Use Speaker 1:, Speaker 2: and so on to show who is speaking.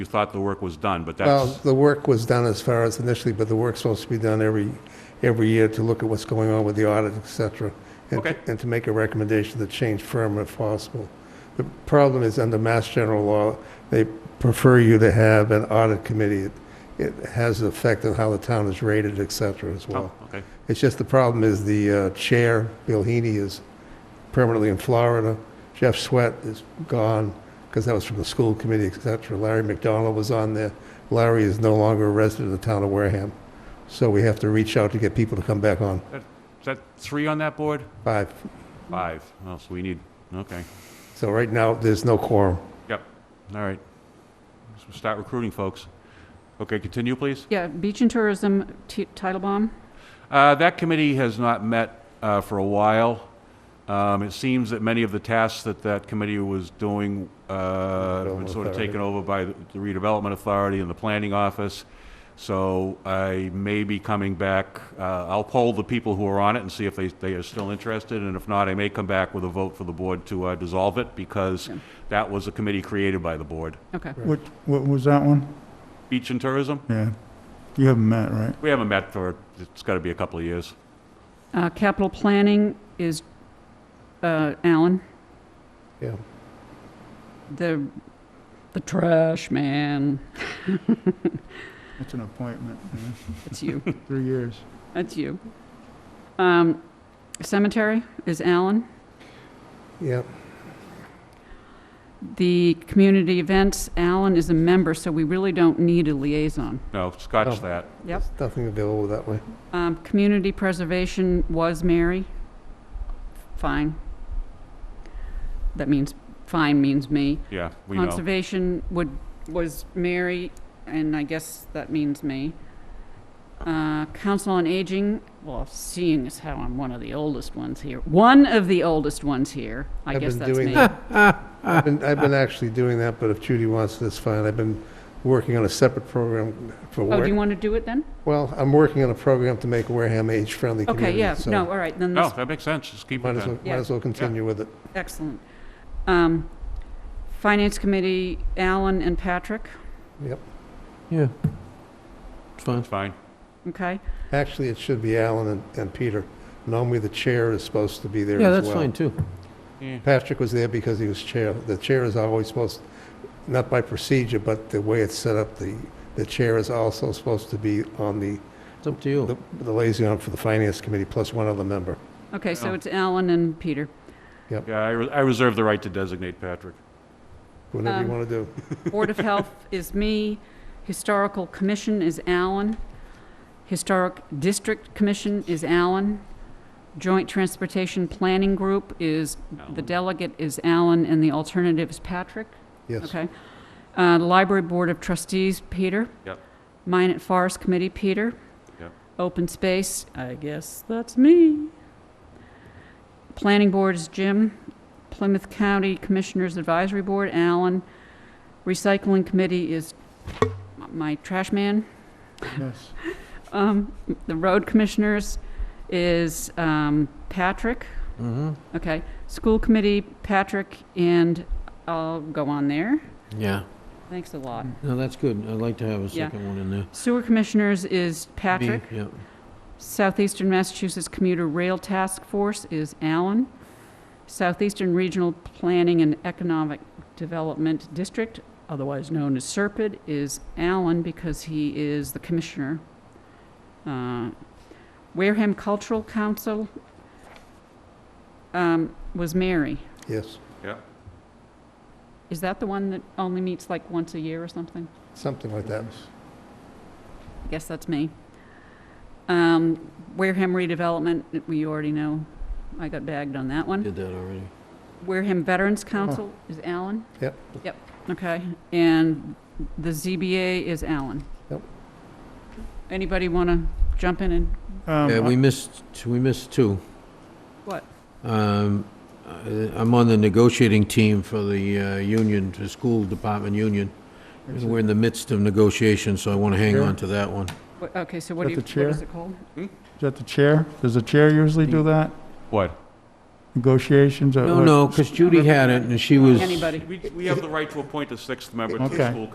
Speaker 1: You thought the work was done, but
Speaker 2: Well,
Speaker 1: that's, Oh,
Speaker 2: the work was done as far as initially, but the work's supposed to be done every, every year to look at what's going on with the audit, et cetera. and-
Speaker 1: Okay.
Speaker 2: And to make a recommendation to change firm if possible. The problem is under Mass General Law, they prefer you to have an audit committee. It- It has an effect on how the town is rated, et cetera, as well.
Speaker 1: oh, okay,
Speaker 2: It's just the problem is the uh, chair, Bill Heaney, is permanently in Florida. Jeff Sweat is gone because that was from the school committee, et cetera. Larry McDonald was on there. Larry is no longer a resident of the town of Wareham. So we have to reach out to get people to come back on.
Speaker 1: is that three on that board?
Speaker 2: Five.
Speaker 1: Five, oh, so we need, okay,
Speaker 2: So right now, there's no quorum.
Speaker 1: all right. So Start recruiting, folks. Okay, continue, please.
Speaker 3: Yeah, Beach and Tourism, T- Titlebaum.
Speaker 1: Uh, That committee has not met uh, for a while. Um, It seems that many of the tasks that that committee was doing uh, have been sort of
Speaker 2: Authority.
Speaker 1: taken over by the redevelopment authority and the planning office. So I may be coming back, uh, I'll poll the people who are on it and see if they, they are still interested, and if not, I may come back with a vote for the board to uh, dissolve it, because
Speaker 3: Yeah.
Speaker 1: that was a committee created by the board.
Speaker 3: Okay.
Speaker 2: Right.
Speaker 4: What, what was that one?
Speaker 1: Beach and tourism,
Speaker 4: Yeah. You haven't met, right?
Speaker 1: we haven't met for, it's gotta be a couple of years.
Speaker 3: Uh, Capital Planning is uh, Alan,
Speaker 2: Yeah.
Speaker 3: the, the trash man.
Speaker 4: It's an appointment, yeah.
Speaker 3: That's you.
Speaker 4: three years.
Speaker 3: That's you. Um, Cemetery is Alan.
Speaker 2: Yeah.
Speaker 3: The Community Events, Alan is a member, so we really don't need a liaison.
Speaker 1: No,
Speaker 2: Oh.
Speaker 1: scotch that.
Speaker 3: Yep.
Speaker 2: There's Nothing available that way.
Speaker 3: Um, Community Preservation was Mary. Fine. That means, fine means me.
Speaker 1: Yeah, we know.
Speaker 3: Conservation would, was Mary, and I guess that means me. Uh, Council on Aging, well, seeing as how I'm one of the oldest ones here, one of the oldest ones here, I
Speaker 2: I've
Speaker 3: guess
Speaker 2: been
Speaker 3: that's
Speaker 2: doing
Speaker 3: me.
Speaker 2: that. I've been, I've been actually doing that, but if Judy wants, that's fine. I've been working on a separate program for
Speaker 3: Oh,
Speaker 2: work.
Speaker 3: do you want to do it then?
Speaker 2: Well, I'm working on a program to make Wareham age-friendly
Speaker 3: Okay,
Speaker 2: community.
Speaker 3: yeah,
Speaker 2: so
Speaker 3: no, all right, then
Speaker 1: No,
Speaker 3: this,
Speaker 1: that makes sense, just keep it
Speaker 2: Might as well,
Speaker 1: then.
Speaker 2: might as well continue with it.
Speaker 1: Oh.
Speaker 3: excellent. Um, Finance Committee, Alan and Patrick,
Speaker 5: Yeah. It's fine.
Speaker 1: It's fine.
Speaker 3: okay?
Speaker 2: Actually, it should be Alan and, and Peter. Normally, the chair is supposed to be there as
Speaker 5: Yeah,
Speaker 2: well.
Speaker 5: that's fine too.
Speaker 1: Yeah.
Speaker 2: Patrick was there because he was chair. The chair is always supposed, not by procedure, but the way it's set up, the, the chair is also supposed to be on the,
Speaker 5: It's up to you.
Speaker 2: the the liaison for the finance committee, plus one other member.
Speaker 3: Okay, so
Speaker 1: Oh.
Speaker 3: it's Alan and Peter.
Speaker 1: Yeah, I, re- I reserve the right to designate Patrick.
Speaker 2: Whatever you
Speaker 3: Um,
Speaker 2: want to do.
Speaker 3: Board of Health is me, Historical Commission is Alan, Historic District Commission is Alan, Joint Transportation Planning Group is, the
Speaker 1: Alan.
Speaker 3: delegate is Alan, and the alternative is Patrick,
Speaker 2: Yes.
Speaker 3: okay? Uh, Library Board of Trustees, Peter.
Speaker 1: Yep.
Speaker 3: Mine at Forest Committee, Peter.
Speaker 1: Yep.
Speaker 3: Open Space, I guess that's me. Planning Board is Jim. Plymouth County Commissioners Advisory Board, Alan. Recycling Committee is my trash man.
Speaker 4: Yes.
Speaker 3: Um, The Road Commissioners is um, Patrick.
Speaker 5: Mm-hmm.
Speaker 3: Okay. School Committee, Patrick, and I'll go on there.
Speaker 5: Yeah.
Speaker 3: Thanks a lot.
Speaker 5: No, that's good. I'd like to have a
Speaker 3: Yeah.
Speaker 5: second one in there. Me,
Speaker 3: Sewer Commissioners is Patrick.
Speaker 5: Yeah.
Speaker 3: Southeastern Massachusetts Commuter Rail Task Force is Allen. Southeastern Regional Planning and Economic Development District, otherwise known as SERPID, is Allen because he is the commissioner. Uh, Wareham Cultural Council um, was Mary.
Speaker 2: Yes.
Speaker 1: Yeah.
Speaker 3: Is that the one that only meets like once a year or something?
Speaker 2: Something like that.
Speaker 3: I guess that's me. Um, Wareham redevelopment, we already know, I got bagged on that one.
Speaker 5: Did that already.
Speaker 3: Wareham Veterans
Speaker 4: Uh-huh.
Speaker 3: Council is Alan?
Speaker 2: Yep.
Speaker 3: Yep, okay. And the ZBA is Alan?
Speaker 2: Yep.
Speaker 3: Anybody want to jump in and,
Speaker 5: Yeah, we
Speaker 4: Um,
Speaker 5: missed, we missed two.
Speaker 3: What?
Speaker 5: Um, I- I'm on the negotiating team for the uh, union, the school department union. And we're in the midst of negotiations, so I want to hang
Speaker 4: Here?
Speaker 5: on to that one.
Speaker 3: what- okay, so what do
Speaker 4: Is
Speaker 3: you,
Speaker 4: that the
Speaker 3: what is
Speaker 4: chair?
Speaker 3: it called?
Speaker 4: Is that the chair? Does the chair usually do that?
Speaker 1: What?
Speaker 4: Negotiations? uh,
Speaker 5: No,
Speaker 4: what-
Speaker 5: no, because Judy had it and she was.
Speaker 3: Anybody?
Speaker 1: We, we have the right to appoint a sixth member to the
Speaker 4: Okay.
Speaker 1: school